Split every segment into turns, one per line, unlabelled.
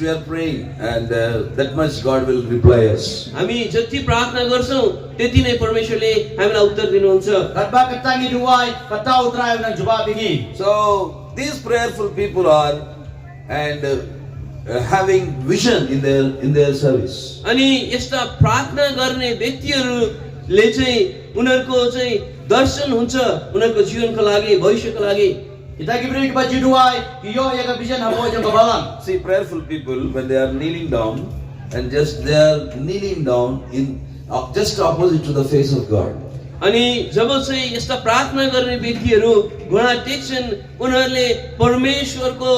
we are praying, and uh, that much God will reply us.
हामी जति प्रार्थना गर्छौँ त्यति नै परमेश्वरले हामीलाई उत्तर दिनुहुन्छ
Kadba katangi duway, kataw trayo ng jubab ini.
So these prayerful people are and uh, uh, having vision in their in their service.
अनि यस्ता प्रार्थना गर्ने व्यक्तिहरूले चाहिँ उनीहरूको चाहिँ दर्शन हुन्छ उनीहरूको जीवनको लागि भविष्यको लागि
Kita gibri ka baju duway, iyo ya ka bisan habo jang kabalang.
See, prayerful people when they are kneeling down and just they are kneeling down in uh, just opposite to the face of God.
अनि जब चाहिँ यस्ता प्रार्थना गर्ने व्यक्तिहरू घुँडा टेक्छन् उनीहरूले परमेश्वरको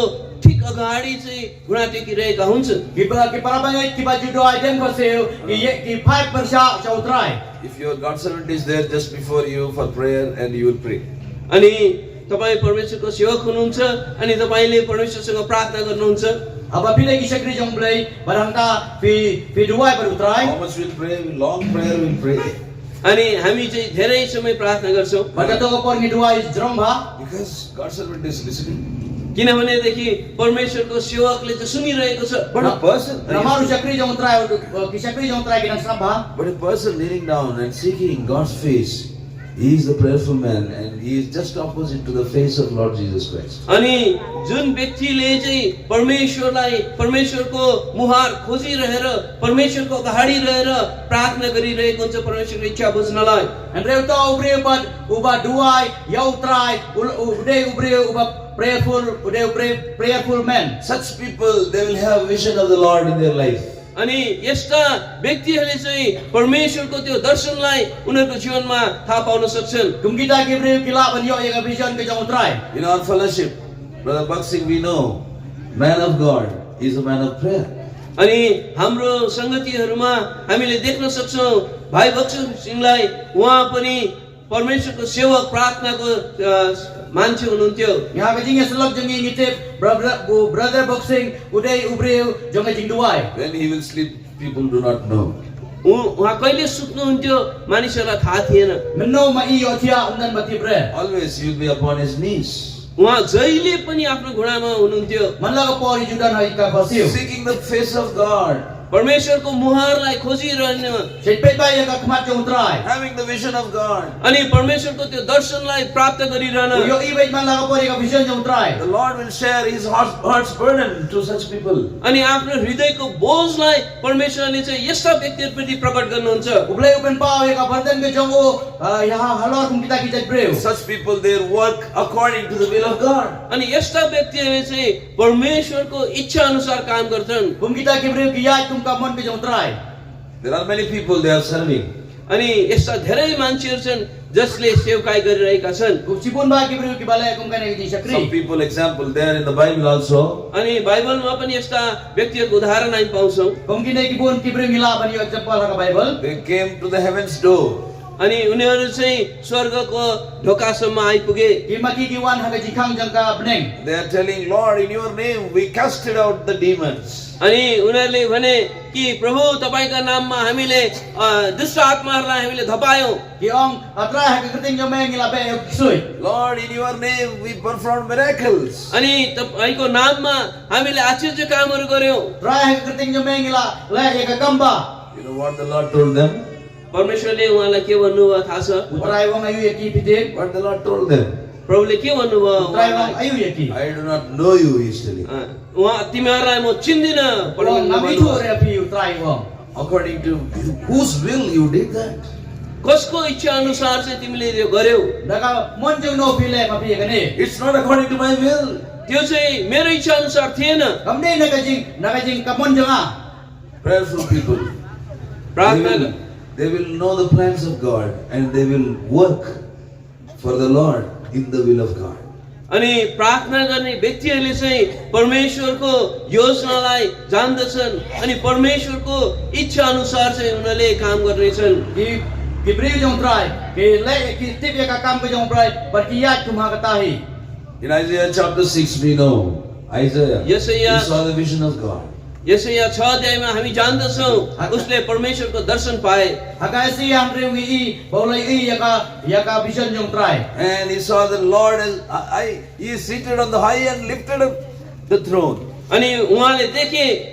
ठिक अगाडि चाहिँ घुँडा टेकिरहेका हुन्छन्
Gibra ki para bangay ki baju duway den ko seo, iya ki five persa sa utray.
If your God servant is there just before you for prayer and you will pray.
अनि तपाईँ परमेश्वरको सेवक हुनुहुन्छ अनि तपाईँले परमेश्वरसँग प्रार्थना गर्नुहुन्छ
Aba pila ki sakri jang blay, barang ta pi pi duway bar utray.
How much will pray? Long prayer will pray.
अनि हामी चाहिँ धेरै समय प्रार्थना गर्छौँ
Bagato ko por ni duway jrom ha.
Because God servant is listening.
किनभनेदेखि परमेश्वरको सेवकले त सुनिरहेको छ
But a person
Ramaru sakri jang utray, eh, ki sakri jang utray kinang sabha.
But a person kneeling down and seeking God's face, he is the prayerful man and he is just opposite to the face of Lord Jesus Christ.
अनि जुन व्यक्तिले चाहिँ परमेश्वरलाई परमेश्वरको मुहार खोजिरहेर परमेश्वरको अगाडि रहेर प्रार्थना गरिरहेको हुन्छ परमेश्वरको इच्छा बुझ्नलाई
Andreu to ubre ubat uba duai ya utrai ude ubre uba prayerful ude ubre prayerful man.
Such people, they will have vision of the Lord in their life.
अनि यस्ता व्यक्तिहरूले चाहिँ परमेश्वरको त्यो दर्शनलाई उनीहरूको जीवनमा थाहा पाउन सक्छन्
Kum kita gibre kila ban yo ya vision ke jang utrai.
In our fellowship, Brother Baksing, we know, man of God is a man of prayer.
अनि हाम्रो सङ्गतिहरूमा हामीले देख्न सक्छौँ भाइ बक्सु सिंहलाई उहाँ पनि परमेश्वरको सेवक प्रार्थनाको अ, मान्छे हुनुहुन्थ्यो
Ya ke jing selok jang ngitip brother bu- brother boxing ude ubre jang jing duai.
When he will sleep, people do not know.
उ- उहाँ कहिले सुत्नुहुन्थ्यो मानिसहरूलाई थाहा थिएन
Meno ma iyo tia undan mati bre.
Always he will be upon his knees,
उहाँ जहिले पनि आफ्नो घुँडामा हुनुहुन्थ्यो
Manla ko por judan hai ka basiu.
seeking the face of God,
परमेश्वरको मुहारलाई खोजिरहन
Sipet ba ya ka kmat jang utrai.
having the vision of God.
अनि परमेश्वरको त्यो दर्शनलाई प्राप्त गरिरहन
Yo ibet manla ko por ya ka vision jang utrai.
The Lord will share his heart- heart's burden to such people.
अनि आफ्नो हृदयको बोझलाई परमेश्वरले चाहिँ यस्ता व्यक्तिहरूप्रति प्रकट गर्नुहुन्छ
Uble uben pao ya ka bardan ke jang o ya halor kum kita kita bre.
Such people, their work according to the will of God.
अनि यस्ता व्यक्तिहरूले चाहिँ परमेश्वरको इच्छा अनुसार काम गर्छन्
Kung kita kibriw kiyay, kung ka mon bijong try.
There are many people they are serving.
अनि यस्ता धेरै मान्छेहरू छन् जसले सेवकाई गरिरहेका छन्
Kung sipon ba kibriw kibalay, kung ka nagiging
Some
sakri.
people, example, they are in the Bible also.
अनि बाइबलमा पनि यस्ता व्यक्तिहरूको उदाहरण हामी पाउँछौँ
Kung kinaikibon kibriw ngilaban yung example sa Bible.
They came to the heaven's door.
अनि उनीहरू चाहिँ स्वर्गको ढोकासम्म आइपुगे
Kung makikiwan haka jikang jang ka beneng.
They are telling, Lord, in your name we casted out the demons.
अनि उनीहरूले भने कि प्रभु तपाईँका नाममा हामीले अ, दुष्ट आत्माहरूलाई हामीले धपायौँ
Kiong atra haka kiting yung may ngilabe yung kisoy.
Lord, in your name we performed miracles.
अनि तपाईँको नाममा हामीले आश्चर्य कामहरू गर्यौँ
Tra haka kiting yung may ngila, lay yung kagamba.
You know what the Lord told them?
परमेश्वरले उहाँलाई के भन्नुभयो थाहा छ
Utray wang ayu yaki pitin.
What the Lord told them?
प्रभुले के भन्नुभयो
Utray
उहाँलाई?
wang ayu yaki.
I do not know you, he is telling.
अँ, उहाँ तिमीहरूलाई म चिन्दिनँ
Wang
परमेश्वरले
namitu
भन्नुभयो।
repi utray wang.
According to whose will you did that?
कसको इच्छा अनुसार चाहिँ तिमीले यो गर्यौ
Daka mon jong no pile mapi yakani.
It's not according to my will.
त्यो चाहिँ मेरो इच्छा अनुसार थिएन
Kamni nakajing, nakajing kamon jong ah.
Prayerful people. They
प्रार्थना
will, they will know the plans of God and they will work for the Lord in the will of God.
अनि प्रार्थना गर्ने व्यक्तिहरूले चाहिँ परमेश्वरको योजनालाई जान्दछन् अनि परमेश्वरको इच्छा अनुसार चाहिँ उनीहरूले काम गर्नेछन्
कि किब्रिल जों ट्राई कि ले कि टिप या का काम के जों ट्राई पर कि याद तुम्हा कता ही
In Isaiah chapter 6, we know Isaiah,
Yes, sir, yeah.
he saw the vision of God.
यसै यहाँ छ अध्यायमा हामी जान्दछौँ उसले परमेश्वरको दर्शन पाए
हकासी हम रेंगे ई बोले ई या का या का विजन जों try
And he saw the Lord as I, I- he is seated on the high and lifted up the throne.
अनि उहाँले देखे